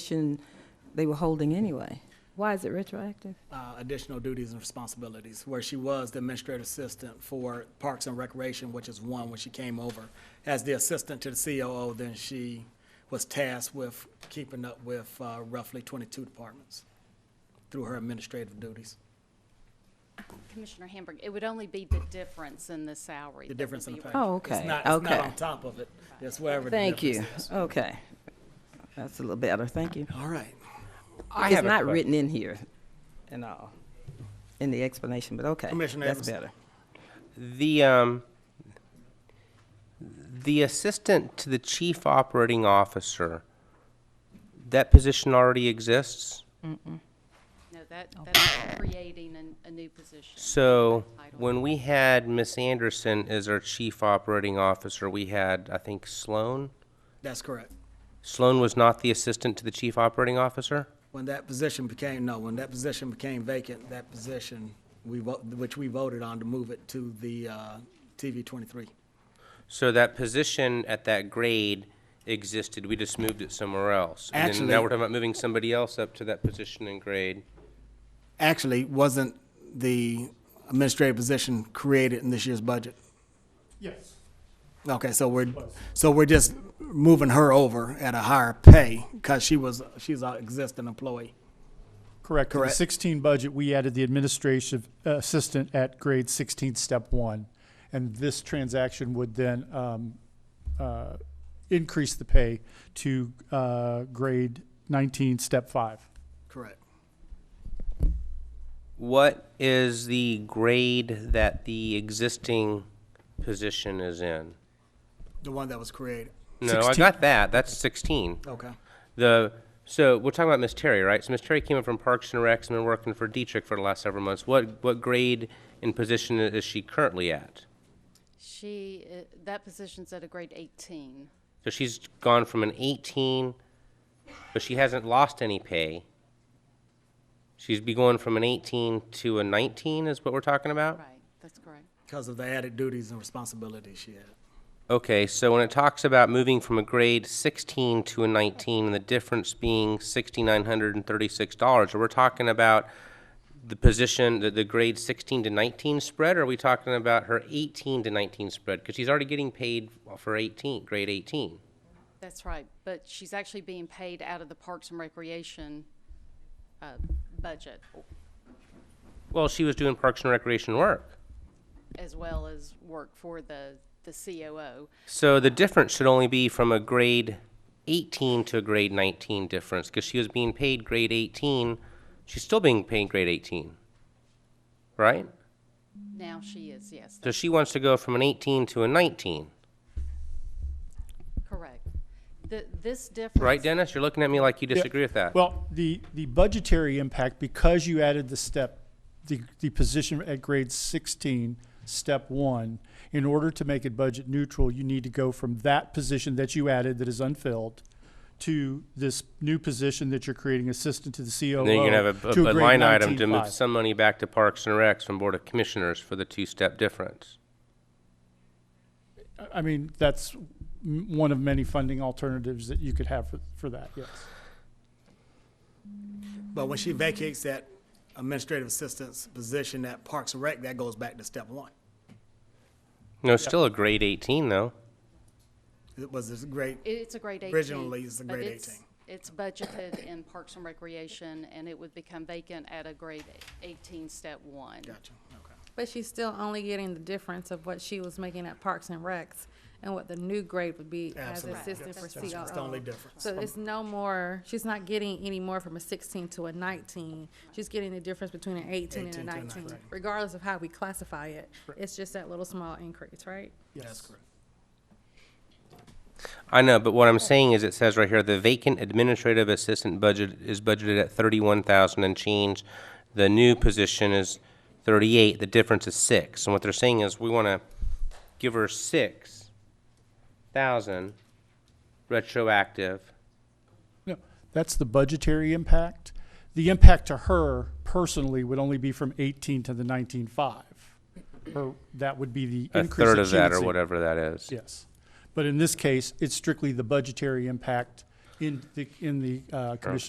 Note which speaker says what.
Speaker 1: position they were holding anyway.
Speaker 2: Why is it retroactive?
Speaker 3: uh, additional duties and responsibilities, where she was the administrative assistant for Parks and Recreation, which is one when she came over. As the assistant to the COO, then she was tasked with keeping up with uh, roughly 22 departments through her administrative duties.
Speaker 4: Commissioner Hamburg, it would only be the difference in the salary.
Speaker 3: The
Speaker 4: that
Speaker 3: difference
Speaker 4: would
Speaker 3: in the
Speaker 4: be
Speaker 3: pay.
Speaker 1: Oh,
Speaker 3: It's
Speaker 1: okay,
Speaker 3: not, it's not
Speaker 1: okay.
Speaker 3: on top of it. It's wherever the
Speaker 1: Thank you.
Speaker 3: difference is.
Speaker 1: Okay. That's a little better. Thank you.
Speaker 3: All right.
Speaker 5: I
Speaker 1: It's
Speaker 5: have a
Speaker 1: not
Speaker 5: que-
Speaker 1: written in here and all, in the explanation, but okay.
Speaker 3: Commissioner
Speaker 1: That's better.
Speaker 3: Evans.
Speaker 5: The um, the assistant to the chief operating officer. That position already exists.
Speaker 4: No, that, that's creating an- a new position.
Speaker 5: So
Speaker 4: Title.
Speaker 5: when we had Miss Anderson as our chief operating officer, we had I think Sloan.
Speaker 3: That's correct.
Speaker 5: Sloan was not the assistant to the chief operating officer.
Speaker 3: When that position became, no, when that position became vacant, that position, we, vo- which we voted on to move it to the uh, TV 23.
Speaker 5: So that position at that grade existed. We just moved it somewhere else. And then now
Speaker 3: Actually-
Speaker 5: we're talking about moving somebody else up to that position and grade.
Speaker 3: actually wasn't the administrative position created in this year's budget?
Speaker 6: Yes.
Speaker 3: Okay, so we're, so we're just moving her over at a higher pay because she was, she's an existing employee.
Speaker 6: Correct. To the
Speaker 3: Correct.
Speaker 6: 16 budget, we added the administrative uh, assistant at grade 16, step one. And this transaction would then um, uh, increase the pay to uh, grade 19, step five.
Speaker 3: Correct.
Speaker 5: What is the grade that the existing position is in?
Speaker 3: The one that was created.
Speaker 5: No, I
Speaker 6: 16.
Speaker 5: got that. That's 16.
Speaker 3: Okay.
Speaker 5: The so we're talking about Miss Terry, right? So Miss Terry came in from Parks and Recs and been working for Dietrich for the last several months. What what grade and position is she currently at?
Speaker 4: She, uh, that position's at a grade 18.
Speaker 5: So she's gone from an 18, but she hasn't lost any pay. She's be going from an 18 to a 19 is what we're talking about.
Speaker 4: Right, that's correct.
Speaker 3: Because of the added duties and responsibilities she had.
Speaker 5: Okay, so when it talks about moving from a grade 16 to a 19, and the difference being $6,936, are we talking about the position, the, the grade 16 to 19 spread, or are we talking about her 18 to 19 spread? Because she's already getting paid for 18, grade 18.
Speaker 4: That's right, but she's actually being paid out of the Parks and Recreation uh, budget
Speaker 5: Well, she was doing Parks and Recreation work.
Speaker 4: as well as work for the, the COO.
Speaker 5: So the difference should only be from a grade 18 to a grade 19 difference, because she was being paid grade 18, she's still being paid grade 18, right?
Speaker 4: Now she is, yes,
Speaker 5: So
Speaker 4: that's
Speaker 5: she wants to go from an 18 to a 19,
Speaker 4: correct. The, this difference.
Speaker 5: right, Dennis? You're looking at me like you disagree with that.
Speaker 6: Well, the, the budgetary impact, because you added the step, the, the position at grade 16, step one, in order to make it budget neutral, you need to go from that position that you added that is unfilled to this new position that you're creating, assistant to the COO.
Speaker 5: And then you're gonna have
Speaker 6: to
Speaker 5: a- a,
Speaker 6: grade
Speaker 5: line item to
Speaker 6: 19.5.
Speaker 5: move some money back to Parks and Recs from Board of Commissioners for the two-step difference.
Speaker 6: I mean, that's m- one of many funding alternatives that you could have for, for that, yes.
Speaker 3: But when she vacates that administrative assistant's position at Parks and Rec, that goes back to step one.
Speaker 5: No, it's still a grade 18, though.
Speaker 3: It was this great,
Speaker 4: It's a grade 18.
Speaker 3: Originally, it's a
Speaker 4: but
Speaker 3: grade
Speaker 4: it's-
Speaker 3: 18.
Speaker 4: It's budgeted in Parks and Recreation, and it would become vacant at a grade 18, step one.
Speaker 3: gotcha, okay.
Speaker 7: But she's still only getting the difference of what she was making at Parks and Recs and what the new grade would be as
Speaker 3: Absolutely.
Speaker 7: assistant for COO.
Speaker 3: That's the only difference.
Speaker 7: So it's no more, she's not getting any more from a sixteen to a nineteen. She's getting the difference between an eighteen
Speaker 3: 18
Speaker 7: and a
Speaker 3: to a
Speaker 7: nineteen,
Speaker 3: 19.
Speaker 7: regardless of how we classify it. It's just that little small increase, right?
Speaker 3: That's correct.
Speaker 5: I know, but what I'm saying is it says right here, the vacant administrative assistant budget is budgeted at thirty-one thousand and change. The new position is thirty-eight, the difference is six. And what they're saying is we wanna give her six thousand retroactive.
Speaker 6: No, that's the budgetary impact. The impact to her personally would only be from eighteen to the nineteen-five. Or that would be the
Speaker 5: A
Speaker 6: increase.
Speaker 5: third of
Speaker 6: she
Speaker 5: that
Speaker 6: would
Speaker 5: or
Speaker 6: see.
Speaker 5: whatever that is.
Speaker 6: Yes. But in this case, it's strictly the budgetary impact in the, in the uh, commission